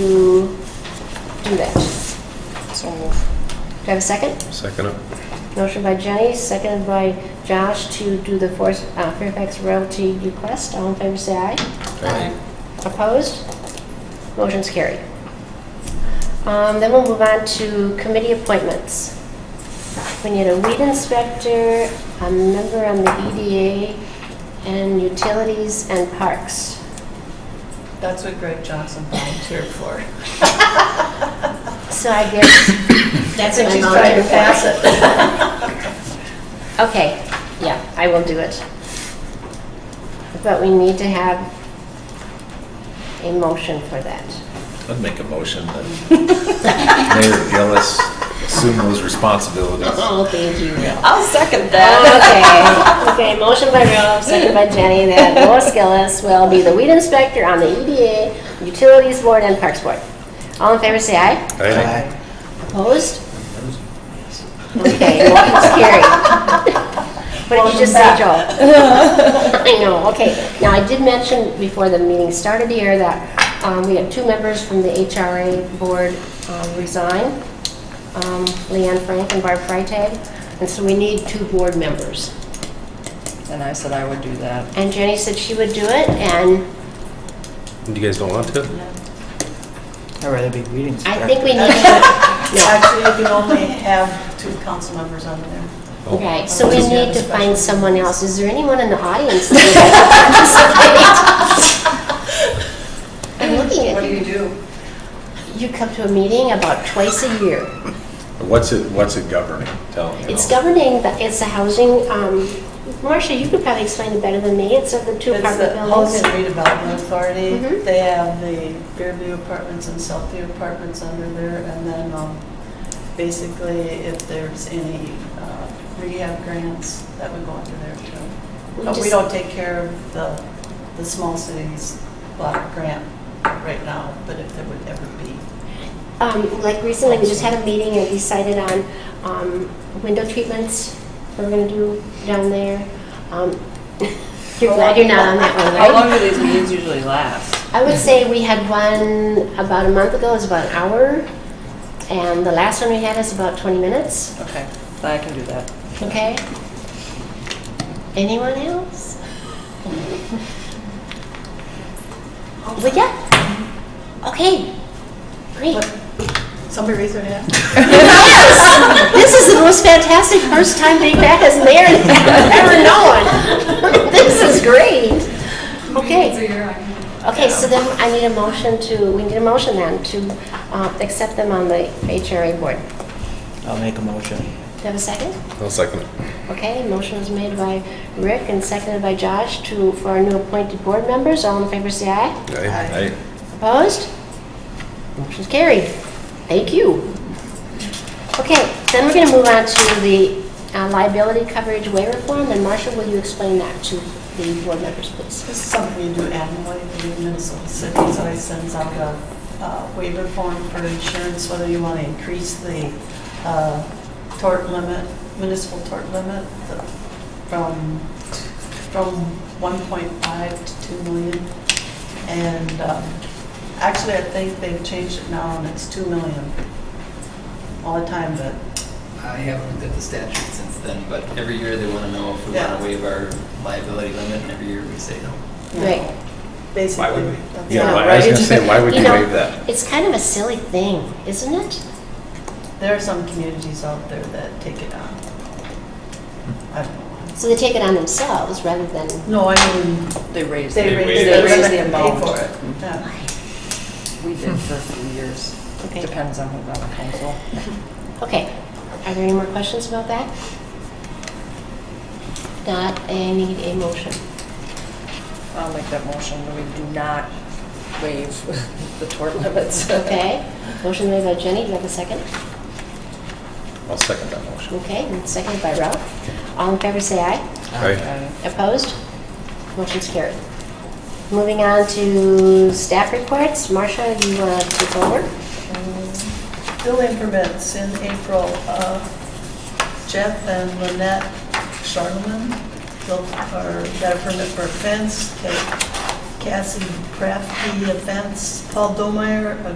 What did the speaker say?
to do that. So move. Do I have a second? Second up. Motion by Jenny, seconded by Josh to do the Forest- uh, Fairfax Realty request. All in favor, say aye. Aye. Opposed? Motion's carried. Um, Then we'll move on to committee appointments. We need a weed inspector, a member on the EDA, and utilities and parks. That's what Greg Johnson volunteered for. So I guess, That's what she's what she's trying trying to to pass it. okay, yeah, I will do it. But we need to have a motion for that. I'd make a motion that Mayor Gillis assume those responsibilities. Oh, thank you, Will. I'll second Oh, Okay, okay, motion by Ralph, second by Jenny, that Lois Gillis will be the weed inspector on the EDA, Utilities Board, and Parks Board. All in favor, say aye. Aye. Opposed? Okay, motion's carried. What did you just say, Joel? I know, okay. Now, I did mention before the meeting started here that um, we had two members from the HRA board um, resign, um, Leanne Frank and Barb Freitag, and so we need two board members. And I said I would do that. And Jenny said she would do it, and You guys don't want to? I'd rather be reading. I think we need to... No. Actually, you can only have two council members on there. Oh. Okay, so we Just need have to a find special- someone else. Is there anyone in the audience that would participate? I'm looking What at do you you. do? You come to a meeting about twice a year. What's it, what's it governing? Tell me. It's governing, the- it's the housing, um, Marcia, you could probably explain it better than me. It's of the two It's the apartment buildings. Housing Redevelopment Authority. Mhm. They have the Fairview Apartments and Southview Apartments under there. And then um, basically, if there's any uh, rehab grants, that would go under there We too. But we just- don't take care of the, the small cities block grant right now, but if there would ever be. Um, like recently, we just had a meeting and decided on, um, window treatments we're gonna do down there. Um, You're glad you're not on that one, right? How long do these meetings usually last? I would say we had one about a month ago, it was about an hour, and the last one we had is about 20 minutes, Okay, I can do that. okay? Anyone else? Well, yeah, okay, great. Somebody raise their hand. Yes! This is the most fantastic first time being back as mayor I've ever known. This is great. Okay. Okay, so then I need a motion to, we need a motion then to uh, accept them on the HRA board. I'll make a motion. Do you have a second? I'll second it. Okay, motion was made by Rick and seconded by Josh to, for our new appointed board members. All in favor, say aye. Aye. Aye. Opposed? Motion's carried. Thank you. Okay, then we're going to move on to the uh, liability coverage waiver form, and Marcia, will you explain that to the board members, please? This is something you do annually, the Minnesota City always sends out a uh, waiver form for insurance, whether you want to increase the uh, tort limit, municipal tort limit, the- from, from 1.5 to 2 million. And um, actually, I think they've changed it now, and it's 2 million all the time, but I haven't looked at the statute since then, but every year they want to know if we want Yeah. to waive our liability limit, and every year we say no. you know, Right. basically. Why would we? that's Yeah, not why- I was right. gonna say, why would you know, waive that? It's kind of a silly thing, isn't it? There are some communities out there that take it on. I don't know. So they take it on themselves rather than, No, I mean, They raised, they they raise raised the limit the and pay for amount. it. Yeah. We did for a few years. Okay. Depends on who's on the council. okay. Are there any more questions about that? Not, I need a motion. I'll make that motion. We do not waive the tort limits. Okay, motion made by Jenny, do you have a second? I'll second that motion. Okay, and seconded by Ralph. All in favor, say aye. Aye. Okay. Opposed? Motion's carried. Moving on to staff reports. Marcia, you want to take over? Building permits in April, uh, Jeff and Lynette Charleman built, or got a permit for a fence. Kate- Cassie Crafty, the offense, Paul Domeyer, a